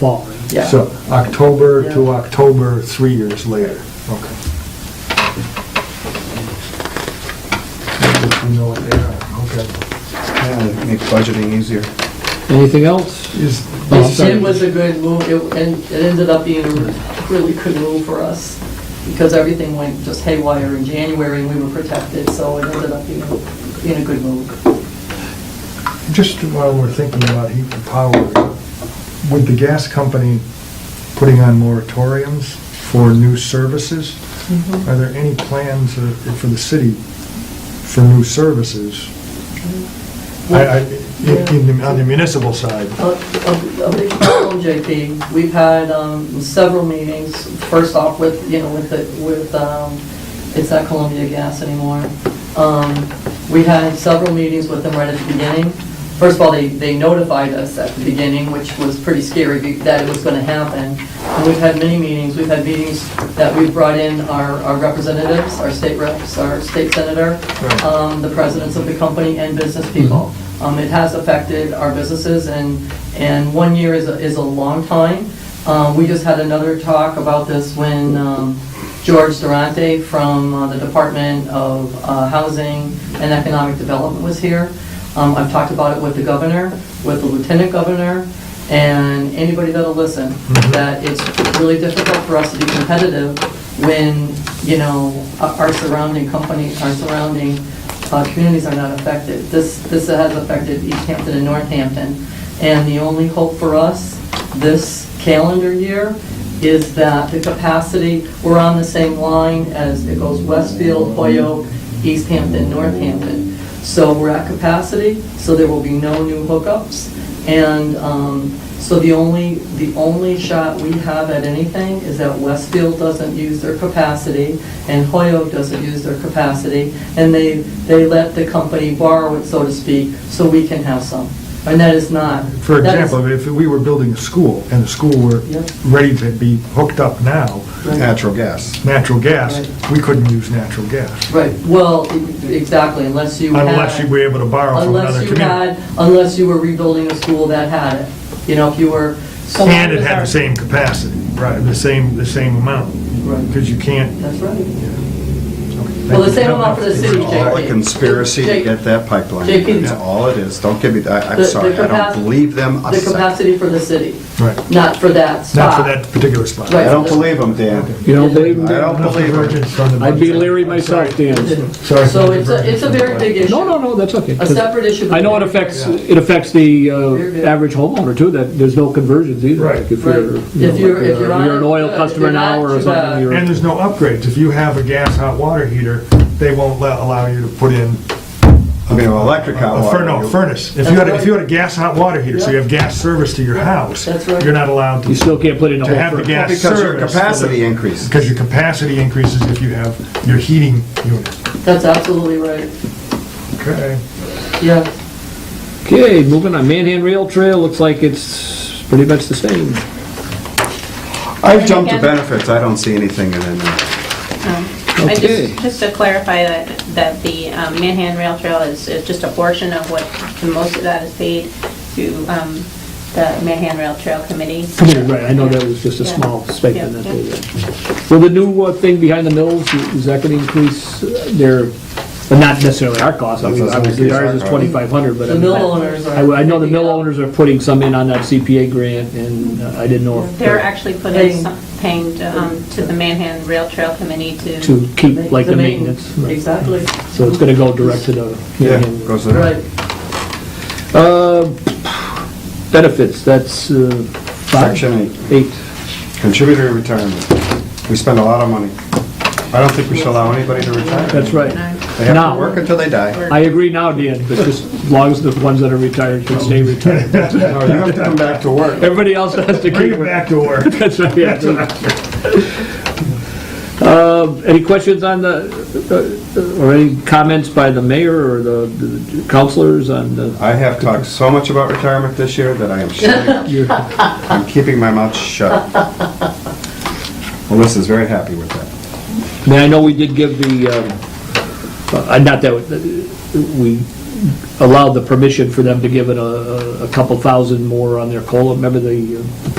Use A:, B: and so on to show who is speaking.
A: following.
B: Yeah.
C: So October to October, three years later, okay. Which we know what they are, okay.
D: Yeah, make budgeting easier.
A: Anything else?
C: Is,
B: It it was a good move, it- and it ended up being a really good move for us, because everything went just haywire in January, and we were protected, so it ended up being, being a good move.
C: just while we're thinking about heat and power, would the gas company putting on moratoriums for new services? Are there any plans uh, for the city for new services? I, I, in, in- on the municipal side?
B: A a- a big problem, JP, we've had um, several meetings, first off with, you know, with, the- with, um, it's not Columbia Gas anymore. Um, We had several meetings with them right at the beginning. First of all, they, they notified us at the beginning, which was pretty scary, be- that it was going to happen. And we've had many meetings, we've had meetings that we've brought in our our representatives, our state reps, our state senator,
C: Right.
B: um, the presidents of the company and business people. Um, It has affected our businesses, and, and one year is, a is a long time. Um, We just had another talk about this when um, George Durante from uh, the Department of uh, Housing and Economic Development was here. Um, I've talked about it with the governor, with the lieutenant governor, and anybody that'll listen, that it's really difficult for us to be competitive when, you know, our our surrounding company, our surrounding uh, communities are not affected. This, this has affected East Hampton and Northampton, and the only hope for us this calendar year is that the capacity, we're on the same line as it goes Westfield, Hoyoke, East Hampton, Northampton. So we're at capacity, so there will be no new hookups. And um, so the only, the only shot we have at anything is that Westfield doesn't use their capacity and Hoyoke doesn't use their capacity. And they, they let the company borrow it, so to speak, so we can have some. And that is not.
C: For
B: that is-
C: example, if we were building a school, and the school were
B: Yeah.
C: ready to be hooked up now,
D: Natural gas.
C: natural gas,
B: Right.
C: we couldn't use natural gas,
B: Right, well, e- exactly, unless you had.
C: unless you were able to borrow from
B: Unless
C: another
B: you
C: community.
B: had, unless you were rebuilding a school that had it. You know, if you were.
C: And it had the same capacity, right, the same, the same amount,
B: Right,
C: because you can't.
B: That's right. Well, the same amount for the city,
D: It's all a
B: JP.
D: conspiracy to get that pipeline.
B: JP.
D: That's all it is. Don't give me, I-
B: The-
D: I'm
B: the
D: sorry, I
B: capac-
D: don't believe them a
B: The
D: second.
B: capacity for the city,
C: Right,
B: not for that
C: not for
B: spot.
C: that particular spot.
B: Right.
D: I don't believe them, Dan.
A: You don't believe me?
D: I don't believe them.
A: I'd be leery myself, Dan.
C: Sorry.
B: So it's a, it's a very big issue.
A: No, no, no, that's okay.
B: A separate issue.
A: I know it affects, it affects the uh, average homeowner too, that there's no conversions either.
C: Right.
A: Like If
B: Right.
A: you're, you know,
B: If you're-
A: like,
B: if you're
A: uh,
B: on
A: you're an
B: a-
A: oil
B: uh,
A: customer
B: if you're
A: now
B: not uh,
A: or
B: too
A: something,
B: bad.
A: you're.
C: And there's no upgrades. If you have a gas hot water heater, they won't let- allow you to put in
D: I mean, electric hot
C: A
D: water.
C: fur- no,
D: you-
C: furnace. If
B: That's
C: you had, a-
B: right.
C: if you had a gas hot water heater, so you have gas service to your house.
B: That's right.
C: You're not allowed
A: You
C: to,
A: still can't put in a
C: to have the
A: whole. fr-
C: gas
D: Because your
C: service.
D: capacity increases.
C: Because your capacity increases if you have your heating unit.
B: That's absolutely right,
C: Okay.
B: yeah.
A: Okay, moving on, Manhan Rail Trail, looks like it's pretty much the same.
D: I've jumped to benefits. I don't see anything in it. now.
E: I
A: Okay.
E: just, just to clarify that, that the um, Manhattan Rail Trail is, is just a portion of what, and most of that is paid through um, the Manhattan Rail Trail Committee.
A: Come here, right, I know that was just a
E: Yeah.
A: small stipend
E: Yeah.
A: that they did. So the new uh, thing behind the mills, is that gonna increase their, well, not necessarily our cost, I mean,
D: Doesn't
A: obviously
D: increase our
A: ours is
D: cost.
A: twenty-five hundred, but. I
B: The
A: mean,
B: mill
A: I-
B: owners are.
A: I, I know the mill owners are putting some in on that CPA grant, and uh, I didn't know if.
E: They're actually
B: Paying.
E: putting, some- paying um, to the Manhattan Rail Trail Committee to.
A: To keep, like, the maintenance, right.
B: Exactly,
A: so it's gonna go direct to the.
D: Yeah,
A: Manhattan.
D: goes to
B: right.
D: that.
A: Uh, benefits, that's, uh, five?
D: Section eight.
A: Eight.
D: Contributor retirement. We spend a lot of money. I don't think we should allow anybody to retire.
A: That's right.
D: They have
A: Now-
D: to work until they die.
A: I agree now, Dan, but just as long as the ones that are retired can stay retired.
D: No, You have to come back to work.
A: Everybody else has to
C: Bring
A: keep
C: it back to work.
A: That's right, yeah. Um, Any questions on the, uh, or any comments by the mayor or the- the councilors on the,
D: I have talked so much about retirement this year that I am shutting up.
A: your-
D: I'm keeping my mouth shut. Melissa's very happy with that.
A: I mean, I know we did give the, um, uh, not that, uh, we allowed the permission for them to give it a a- a couple thousand more on their COLA, remember the uh,